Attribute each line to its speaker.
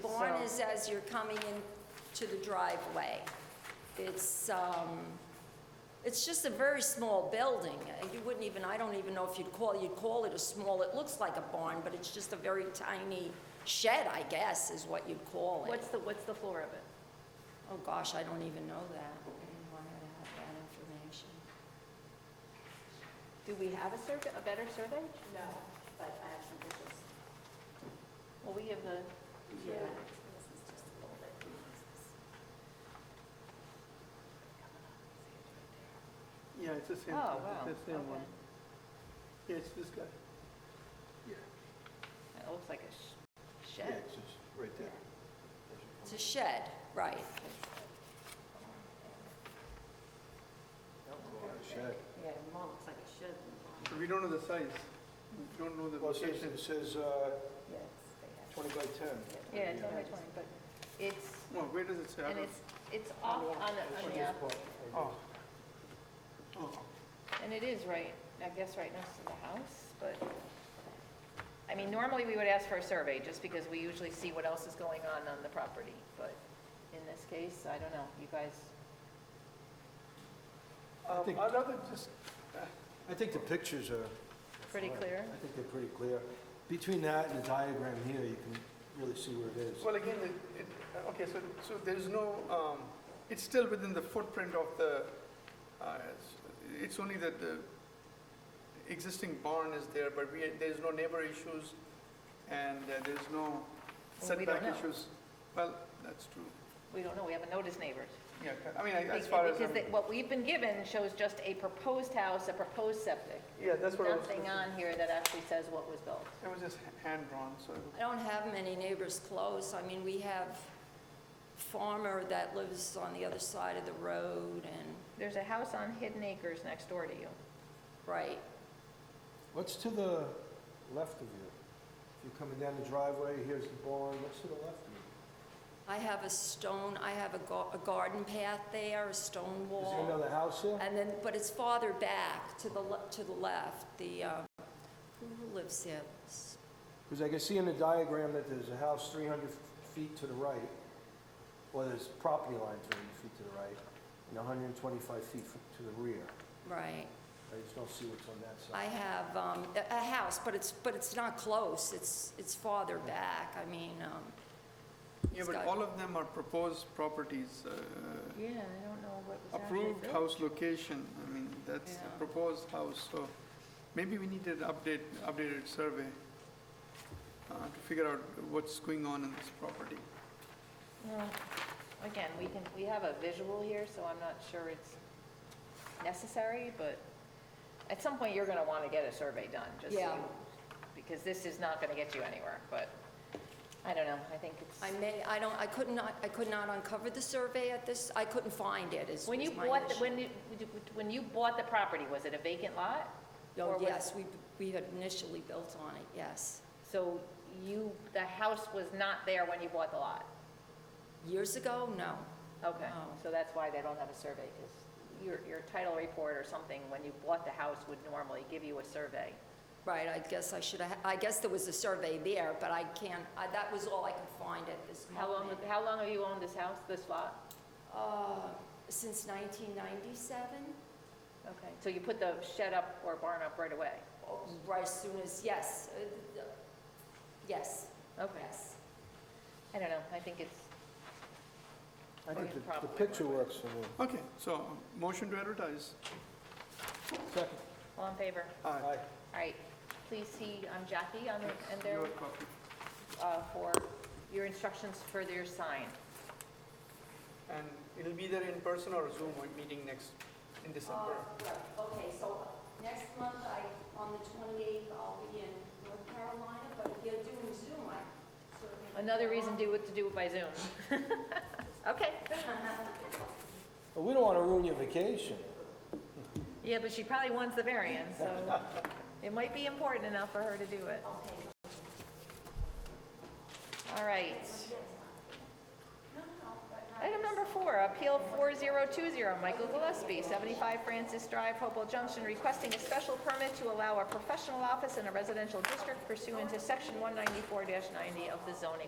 Speaker 1: One
Speaker 2: So-
Speaker 1: is as you're coming in to the driveway. It's, um, it's just a very small building. Uh, You wouldn't even, I don't even know if you'd call, you'd call it a small, it looks like a barn, but it's just a very tiny shed, I guess, is what you'd call it.
Speaker 2: What's the, what's the floor of it?
Speaker 1: Oh, gosh, I don't even know that. I didn't want to have that information.
Speaker 2: Do we have a survey, a better survey?
Speaker 3: No, but I have some pictures.
Speaker 2: Well, we have the,
Speaker 3: Yeah. This is just a little bit.
Speaker 4: Yeah, it's the
Speaker 2: oh,
Speaker 4: same.
Speaker 2: wow.
Speaker 4: It's the same one.
Speaker 2: okay.
Speaker 4: Yeah, it's this guy. Yeah,
Speaker 2: It looks like a sh-
Speaker 4: yeah,
Speaker 2: shed.
Speaker 4: it's just right there.
Speaker 1: It's a shed, right.
Speaker 5: Shed.
Speaker 2: Yeah, it more looks like a shed.
Speaker 4: But We don't know the size. We don't know the
Speaker 5: Well, it says,
Speaker 4: location.
Speaker 5: it says uh,
Speaker 2: Yes,
Speaker 5: 20 by 10.
Speaker 2: Yeah, ten by twenty, but it's,
Speaker 4: No, where does it say? I
Speaker 2: and
Speaker 4: don't-
Speaker 2: it's, it's off on the, on the, app,
Speaker 4: Oh. Oh,
Speaker 2: and it is right, I guess, right next to the house, but, I mean, normally we would ask for a survey, just because we usually see what else is going on on the property, but in this case, I don't know, you guys,
Speaker 5: I think-
Speaker 4: Um, I'd rather just,
Speaker 5: I think the pictures are...
Speaker 2: pretty clear?
Speaker 5: I think they're pretty clear. Between that and the diagram here, you can really see where it is.
Speaker 4: well, again, it- it, okay, so, so there's no, um, it's still within the footprint of the, uh, it's- it's only that the existing barn is there, but we, there's no neighbor issues and uh, there's no
Speaker 2: Well, we don't
Speaker 4: setback
Speaker 2: know.
Speaker 4: issues. Well, that's true.
Speaker 2: We don't know, we haven't noticed neighbors.
Speaker 4: Yeah, I mean, I- as
Speaker 2: Be-
Speaker 4: far as,
Speaker 2: Because
Speaker 4: I'm-
Speaker 2: they- what we've been given shows just a proposed house, a proposed septic.
Speaker 4: yeah, that's what I was,
Speaker 2: Nothing
Speaker 4: it
Speaker 2: on here that actually says what was built.
Speaker 4: was just hand-drawn, so.
Speaker 1: I don't have many neighbors close. I mean, we have farmer that lives on the other side of the road and,
Speaker 2: There's a house on Hidden Acres next door to you.
Speaker 1: right,
Speaker 5: What's to the left of you? If you're coming down the driveway, here's the barn, what's to the left of you?
Speaker 1: I have a stone, I have a gar- a garden path there, a stone
Speaker 5: Is there
Speaker 1: wall.
Speaker 5: another house here?
Speaker 1: And then, but it's farther back, to the, le- to the left, the, uh, who lives there? S-
Speaker 5: Because I can see in the diagram that there's a house 300 feet to the right, or there's property line 300 feet to the right, and 125 feet f- to the rear.
Speaker 1: Right.
Speaker 5: I just don't see what's on that
Speaker 1: I
Speaker 5: side.
Speaker 1: have um, a a house, but it's, but it's not close. It's, it's farther back. I mean, um,
Speaker 4: Yeah,
Speaker 1: It's
Speaker 4: but
Speaker 1: got-
Speaker 4: all of them are proposed properties, uh,
Speaker 2: Yeah, I don't know what was actually
Speaker 4: approved
Speaker 2: built.
Speaker 4: house location, I mean, that's
Speaker 1: Yeah.
Speaker 4: a proposed house, so maybe we need an update, updated survey uh, to figure out what's going on in this property.
Speaker 2: Well, Again, we can, we have a visual here, so I'm not sure it's necessary, but at some point, you're gonna wanna get a survey done, just so
Speaker 1: Yeah.
Speaker 2: you- because this is not gonna get you anywhere, but, I don't know, I think it's.
Speaker 1: I may, I don't, I could not, I could not uncover the survey at this, I couldn't find it, is
Speaker 2: When you
Speaker 1: was my
Speaker 2: bought, the-
Speaker 1: issue.
Speaker 2: when you, when you bought the property, was it a vacant lot?
Speaker 1: Oh,
Speaker 2: or was-
Speaker 1: yes, we, we had initially built on it, yes.
Speaker 2: So you, the house was not there when you bought the lot?
Speaker 1: Years ago? No.
Speaker 2: Okay,
Speaker 1: No.
Speaker 2: so that's why they don't have a survey, because your, your title report or something, when you bought the house, would normally give you a survey.
Speaker 1: Right, I guess I should have, I guess there was a survey there, but I can't, I- that was all I could find at this
Speaker 2: How long,
Speaker 1: moment.
Speaker 2: how long have you owned this house, this lot?
Speaker 1: Uh, since 1997,
Speaker 2: Okay, so you put the shed up or barn up right away?
Speaker 1: Oh, right as soon as, yes, uh, uh, yes,
Speaker 2: Okay,
Speaker 1: yes.
Speaker 2: I don't know, I think it's,
Speaker 5: I think
Speaker 2: Or
Speaker 5: the- the
Speaker 2: probably
Speaker 5: picture
Speaker 2: right away.
Speaker 5: works for me.
Speaker 4: Okay, so, motion to advertise.
Speaker 5: Second.
Speaker 2: all in favor?
Speaker 4: Aye.
Speaker 2: All right, please see, um, Jackie on the, and there,
Speaker 4: Your copy.
Speaker 2: uh, for your instructions for their sign.
Speaker 4: And it'll be there in person or Zoom meeting next, in December.
Speaker 2: Oh.
Speaker 1: Uh, right, Okay, so next month, I, on the 28th, I'll be in North Carolina, but if you're doing Zoom, I certainly...
Speaker 2: Another reason do it to do it by Zoom. Okay.
Speaker 5: Well, we don't want to ruin your vacation.
Speaker 2: Yeah, but she probably wants the variance, so it might be important enough for her to do it. All right. Item number four, Appeal 4020, Michael Gillespie, 75 Francis Drive, Hopewell Junction, requesting a special permit to allow a professional office in a residential district pursuant to Section 194-90 of the zoning